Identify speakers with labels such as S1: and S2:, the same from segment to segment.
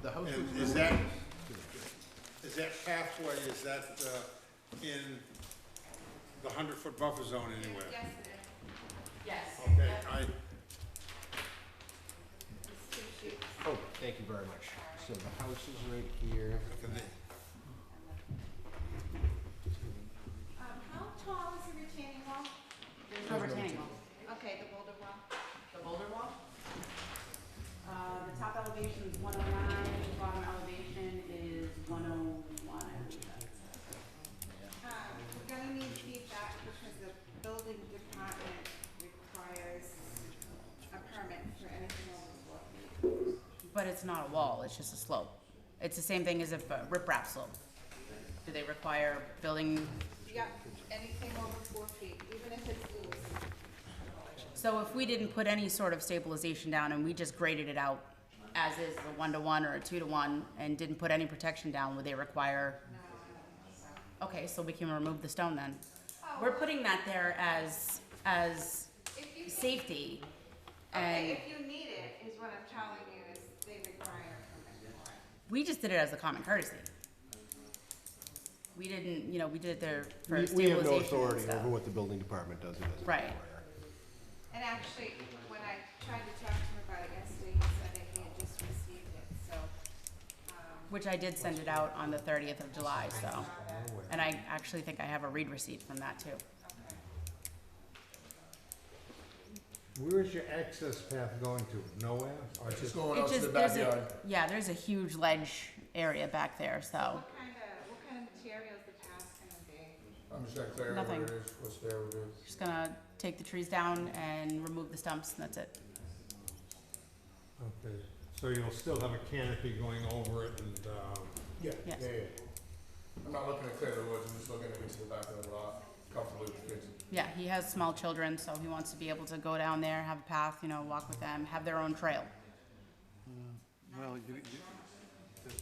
S1: the house
S2: And
S1: was.
S2: is that, is that pathway, is that uh, in the hundred-foot buffer zone anywhere?
S3: Yes, it is. Yes.
S2: Okay,
S3: Yep.
S2: I,
S3: It's two sheets.
S1: Oh, thank you very much. So the house is right here.
S3: Um, how tall is the retaining wall?
S4: There's no retaining wall.
S3: Okay, the boulder wall.
S4: The boulder wall? Uh, the top elevation is one oh nine, the bottom elevation is one oh one, I believe that's.
S3: Um, we're gonna need feedback because the building department requires a permit for anything over four feet.
S4: But it's not a wall, it's just a slope. It's the same thing as if a riprap slope. Do they require building,
S3: Yep, anything over four feet, even if it's loose.
S4: so if we didn't put any sort of stabilization down and we just graded it out as is a one-to-one or a two-to-one and didn't put any protection down, would they require? Okay, so we can remove the stone then. We're putting that there as, as
S3: If you think,
S4: safety and
S3: okay, if you need it, is what I'm telling you, is they require a permit for it.
S4: we just did it as a common courtesy. We didn't, you know, we did it there for
S1: We- We
S4: stabilization
S1: have no
S4: and
S1: authority
S4: stuff.
S1: over what the building department does and doesn't.
S4: Right.
S1: require.
S3: And actually, when I tried to talk to him about it yesterday, he said that he had just received it, so, um,
S4: Which I did send it out on the thirtieth of July,
S3: I
S4: so,
S3: saw that, okay.
S4: and I actually think I have a read receipt from that too.
S5: Where is your access path going to? Nowhere? Or just,
S6: going
S4: It just- there's a- Yeah, there's a huge ledge area back there, so,
S3: What kind of, what kind of materials the path's gonna be?
S6: I'm just not clear
S4: Nothing.
S6: is, what's there, what it is.
S4: just gonna take the trees down and remove the stumps and that's it.
S5: okay, so you'll still have a canopy going over it and, um,
S6: Yeah, yeah,
S4: Yes.
S6: yeah. I'm not looking to clear the woods, I'm just looking to get to the back of the lot, comfortably with kids.
S4: Yeah, he has small children, so he wants to be able to go down there, have a path, you know, walk with them, have their own trail.
S7: Well, you, you, that,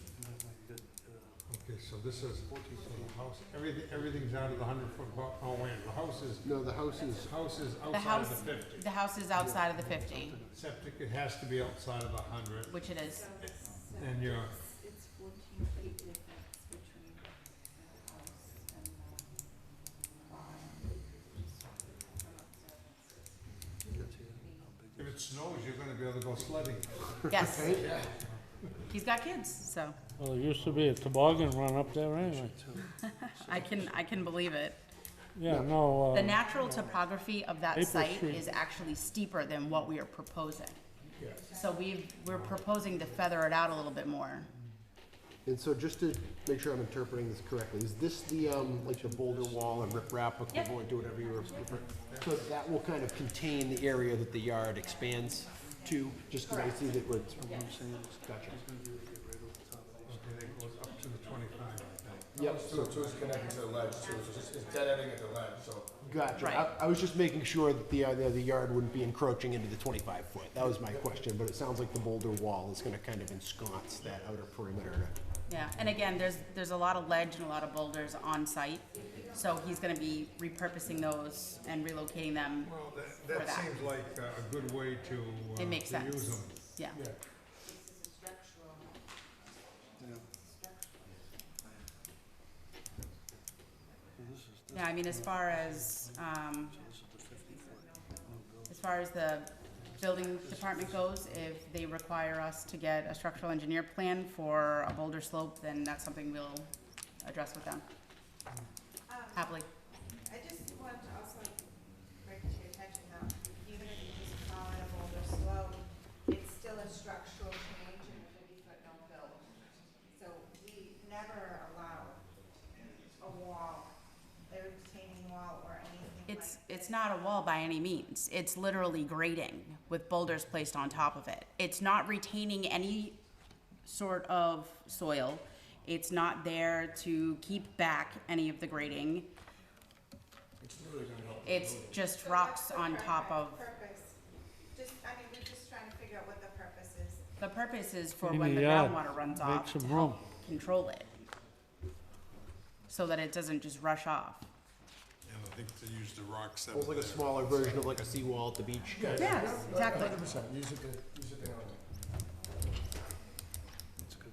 S7: that, uh,
S5: okay, so this is, so the house, everything, everything's out of the hundred foot bu- oh wait, the house is,
S1: No, the house is,
S5: the house is
S4: The
S5: outside
S4: house,
S5: of the fifty.
S4: the house is outside of the fifty,
S5: Septic, it has to be outside of the hundred,
S4: which it is.
S5: and your,
S3: It's fourteen feet difference between the house and the
S7: that's here, how big
S5: if it snows, you're gonna be able to go sledding.
S4: Yes. He's got kids, so
S8: Well, there used to be a toboggan run up there anyway.
S4: I can, I can believe it.
S8: Yeah, no,
S4: The
S8: uh,
S4: natural topography of that
S8: April
S4: site
S8: Street.
S4: is actually steeper than what we are proposing. So we, we're proposing to feather it out a little bit more.
S1: and so just to make sure I'm interpreting this correctly, is this the, um, like the boulder wall and riprap equivalent to whatever you were? So that will kind of contain the area that the yard expands to, just because I see that we're. Gotcha.
S5: Okay, that goes up to the twenty-five, I think.
S1: Yep,
S6: So, so it's connected to the ledge, so it's just, it's dead ending at the ledge, so.
S1: gotcha.
S4: Right.
S1: I, I was just making sure that the, uh, the the yard wouldn't be encroaching into the twenty-five foot. That was my question, but it sounds like the boulder wall is gonna kind of ensconce that outer perimeter.
S4: Yeah, and again, there's, there's a lot of ledge and a lot of boulders on site, so he's gonna be repurposing those and relocating them.
S5: Well, that,
S4: For
S5: that
S4: that.
S5: seems like uh, a good way to, uh, to
S4: It
S5: use
S4: makes
S5: them.
S4: sense. Yeah,
S5: Yeah.
S7: yeah. So this is,
S4: yeah, I mean, as far as, um,
S7: this is the fifty foot,
S4: As far as the building department goes, if they require us to get a structural engineer plan for a boulder slope, then that's something we'll address with them
S3: Um,
S4: happily.
S3: I just want to also bring to your attention that even if you just call it a boulder slope, it's still a structural change in a fifty-foot no build. So we never allow a wall, a retaining wall or anything like.
S4: It's, it's not a wall by any means. It's literally grading with boulders placed on top of it. It's not retaining any sort of soil. It's not there to keep back any of the grading.
S6: It's really gonna help.
S4: It's just rocks
S3: So
S4: on
S3: what's the
S4: top of,
S3: purpose- Purpose, just, I mean, we're just trying to figure out what the purpose is.
S4: the purpose is for
S8: Maybe,
S4: when the
S8: yeah,
S4: groundwater runs
S8: make
S4: off to
S8: some
S4: help
S8: room.
S4: control it so that it doesn't just rush off.
S5: And I think they use the rocks that
S1: Almost
S5: were
S1: like a
S5: there.
S1: smaller version of like a seawall at the beach.
S4: Yes, exactly.
S6: Hundred percent, use it to, use it to.